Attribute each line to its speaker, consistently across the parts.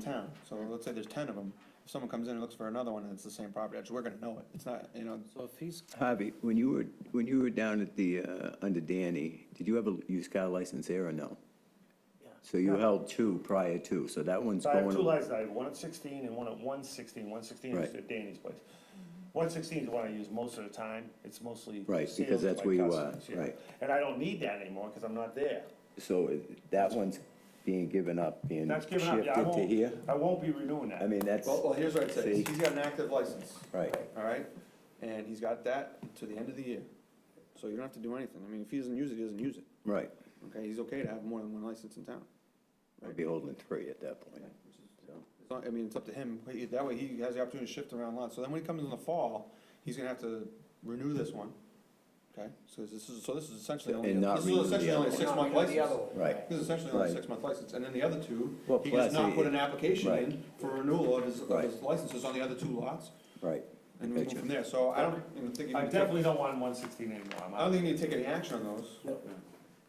Speaker 1: town, so let's say there's ten of them. If someone comes in and looks for another one and it's the same property, actually, we're gonna know it. It's not, you know,
Speaker 2: So if he's,
Speaker 3: Harvey, when you were, when you were down at the, uh, under Danny, did you have a used car license there or no? So you held two prior to, so that one's
Speaker 4: So I
Speaker 3: going.
Speaker 4: have two licenses, I have one at sixteen and one at one sixteen. One sixteen is
Speaker 3: Right.
Speaker 4: at Danny's place. One sixteen is what I use most of the time, it's mostly.
Speaker 3: Right, because
Speaker 4: sales to
Speaker 3: that's
Speaker 4: my
Speaker 3: where you are,
Speaker 4: customers, yeah.
Speaker 3: right.
Speaker 4: And I don't need that anymore, cause I'm not there.
Speaker 3: So it- that one's being given up, being
Speaker 4: That's given up,
Speaker 3: shifted
Speaker 4: yeah, I
Speaker 3: to here?
Speaker 4: won't, I won't be renewing
Speaker 3: I
Speaker 4: that.
Speaker 3: mean, that's,
Speaker 1: well, well, here's what I'd say.
Speaker 3: See?
Speaker 1: He's got an active license,
Speaker 3: right,
Speaker 1: all right? And he's got that to the end of the year. So you don't have to do anything. I mean, if he doesn't use it, he doesn't use it.
Speaker 3: right.
Speaker 1: Okay, he's okay to have more than one license in town.
Speaker 3: I'd be holding three at that point.
Speaker 1: It's not- I mean, it's up to him. He- That way he has the opportunity to shift around lots. So then when he comes in the fall, he's gonna have to renew this one. Okay, so this is, so this is essentially only,
Speaker 3: And not
Speaker 1: this
Speaker 3: renew the
Speaker 1: is essentially
Speaker 3: other
Speaker 1: only a
Speaker 3: one.
Speaker 1: six month license.
Speaker 3: Right.
Speaker 1: This is essentially only a
Speaker 3: Right.
Speaker 1: six month license. And then the other two,
Speaker 3: Well,
Speaker 1: he does
Speaker 3: plus
Speaker 1: not
Speaker 3: he-
Speaker 1: put an application
Speaker 3: right.
Speaker 1: in for renewal of his, of
Speaker 3: Right.
Speaker 1: his licenses on the other two lots.
Speaker 3: Right.
Speaker 1: And we move
Speaker 3: Gotcha.
Speaker 1: from there. So I don't even think you
Speaker 4: I
Speaker 1: need to take,
Speaker 4: definitely don't want one sixteen anymore. I'm
Speaker 1: I don't
Speaker 4: out.
Speaker 1: think you need to take any action on those.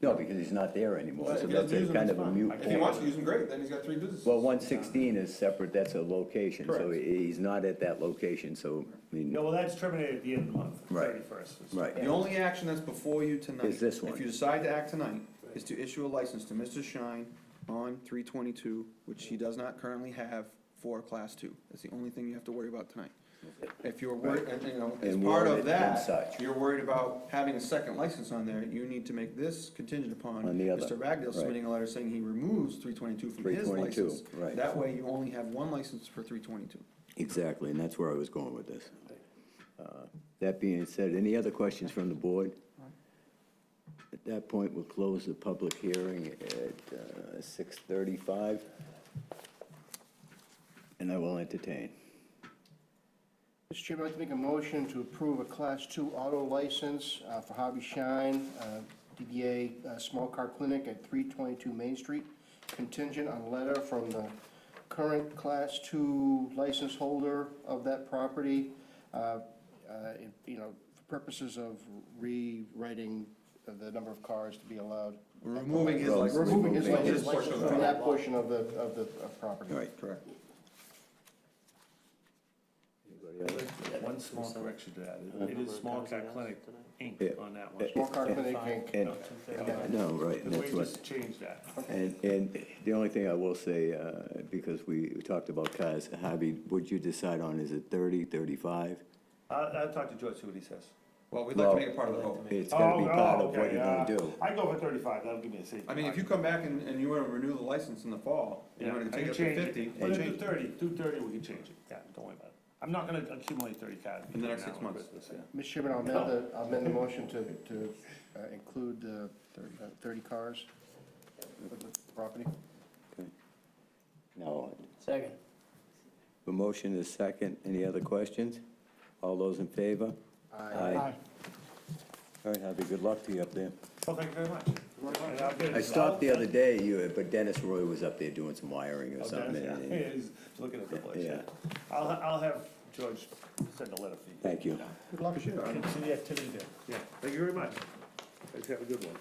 Speaker 3: No, because he's not there anymore,
Speaker 1: But
Speaker 3: so
Speaker 1: if he
Speaker 3: that's
Speaker 1: doesn't
Speaker 3: a
Speaker 1: use them,
Speaker 3: kind
Speaker 1: it's
Speaker 3: of a
Speaker 1: fine.
Speaker 3: mute
Speaker 1: If he wants to
Speaker 3: point.
Speaker 1: use them, great, then he's got three businesses.
Speaker 3: Well, one sixteen is separate, that's a location, so
Speaker 1: Correct.
Speaker 3: he- he's not at that location, so, I mean,
Speaker 4: No, well, that's terminated at the end of the month,
Speaker 3: Right.
Speaker 4: thirty-first.
Speaker 3: right.
Speaker 1: The only action that's before you tonight.
Speaker 3: Is this one.
Speaker 1: If you decide to act tonight, is to issue a license to Mr. Shine on three twenty-two, which he does not currently have for class two. That's the only thing you have to worry about tonight. If you're worried, and, you know, as
Speaker 3: And
Speaker 1: part
Speaker 3: warrant it
Speaker 1: of
Speaker 3: and
Speaker 1: that,
Speaker 3: such.
Speaker 1: you're worried about having a second license on there, you need to make this contingent upon
Speaker 3: On the other,
Speaker 1: Mr. Ragdale
Speaker 3: right.
Speaker 1: submitting a letter saying he removes three twenty-two from his
Speaker 3: 322,
Speaker 1: license.
Speaker 3: right.
Speaker 1: That way you only have one license for three twenty-two.
Speaker 3: Exactly, and that's where I was going with this. Uh, That being said, any other questions from the board? At that point, we'll close the public hearing at uh, 6:35. And I will entertain.
Speaker 5: Mr. Chairman, I'd like to make a motion to approve a Class II auto license uh, for Hobby Shine, uh, DBA uh, Small Car Clinic at 322 Main Street, contingent on a letter from the current Class II license holder of that property, uh, uh, it- you know, for purposes of rewriting the number of cars to be allowed.
Speaker 1: Removing his license.
Speaker 5: Removing his
Speaker 1: Removing
Speaker 5: license
Speaker 1: portion of the
Speaker 5: from
Speaker 1: property.
Speaker 5: that portion of the, of the uh, property.
Speaker 3: All right.
Speaker 1: Correct.
Speaker 4: One small correction to that, it is Small Cat Clinic, Inc.
Speaker 3: Yeah.
Speaker 4: on that one.
Speaker 5: Small Car Clinic, Inc.
Speaker 3: And,
Speaker 4: No,
Speaker 5: Okay.
Speaker 3: no, right, and
Speaker 4: Because we
Speaker 3: that's what,
Speaker 4: just changed that.
Speaker 3: and, and the only thing I will say, uh, because we talked about cars, Javi, would you decide on, is it 30, 35?
Speaker 4: I'll, Uh, I'll talk to George, see what he says.
Speaker 1: Well, we'd like to
Speaker 3: Well,
Speaker 1: make it part of the vote.
Speaker 3: It's gotta be
Speaker 4: Oh,
Speaker 3: part
Speaker 4: oh,
Speaker 3: of what
Speaker 4: okay,
Speaker 3: you're gonna
Speaker 4: yeah.
Speaker 3: do.
Speaker 4: I go for thirty-five, that'll give me a safety.
Speaker 1: I mean, if you come back and, and you wanna renew the license in the fall, and
Speaker 4: Yeah,
Speaker 1: you wanna take
Speaker 4: I
Speaker 1: it
Speaker 4: can
Speaker 1: up
Speaker 4: change
Speaker 1: to fifty,
Speaker 4: Put
Speaker 1: and
Speaker 4: it to
Speaker 1: change it.
Speaker 4: thirty, do thirty, we can change it, yeah, don't worry about it. I'm not gonna accumulate thirty cars.
Speaker 1: In the next
Speaker 4: between
Speaker 1: six
Speaker 4: now and
Speaker 1: months.
Speaker 4: Christmas, yeah.
Speaker 5: Mr. Chairman, I'll amend the, I'll amend the motion to, to uh, include the uh, 30 cars for the property.
Speaker 3: No,
Speaker 6: Second.
Speaker 3: The motion is second. Any other questions? All those in favor? Aye. All right, Javi, good luck to you up there.
Speaker 4: Well, thank you very much. And I'll get it
Speaker 3: I stopped
Speaker 4: resolved.
Speaker 3: the other day, you, but Dennis Roy was up there doing some wiring or
Speaker 4: Oh, Dennis,
Speaker 3: something. and-
Speaker 4: yeah, He's looking at the place, yeah.
Speaker 3: Yeah.
Speaker 4: I'll, I'll have George send a letter for you.
Speaker 3: Thank you.
Speaker 1: Good luck, shit, I
Speaker 4: See the activity there, yeah, thank you very much. Thanks, have a good one.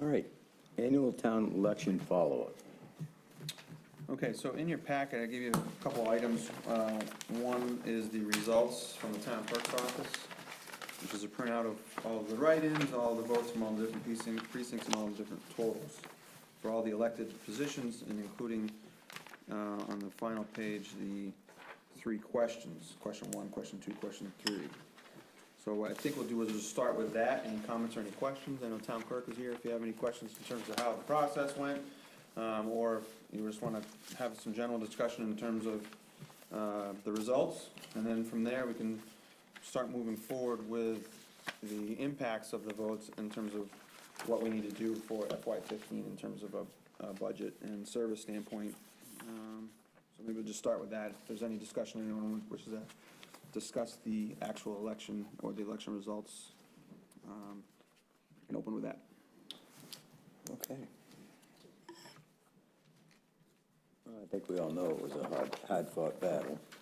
Speaker 3: All right, annual town election follow-up.
Speaker 1: Okay, so in your packet, I give you a couple items. Uh, One is the results from the town clerk's office, which is a printout of all the write-ins, all the votes from all the different precincts, precincts and all the different totals for all the elected positions, and including uh, on the final page, the three questions, question one, question two, question three. So what I think we'll do is just start with that, any comments or any questions, I know town clerk is here, if you have any questions in terms of how the process went, um, or if you just wanna have some general discussion in terms of, uh, the results, and then from there, we can start moving forward with the impacts of the votes in terms of what we need to do for FY fifteen in terms of a, a budget and service standpoint. Um, So maybe we'll just start with that, if there's any discussion, anyone wishes to discuss the actual election or the election results. um, we Can open with that.
Speaker 3: Okay. Well, I think we all know it was a hard, hard-fought battle. uh,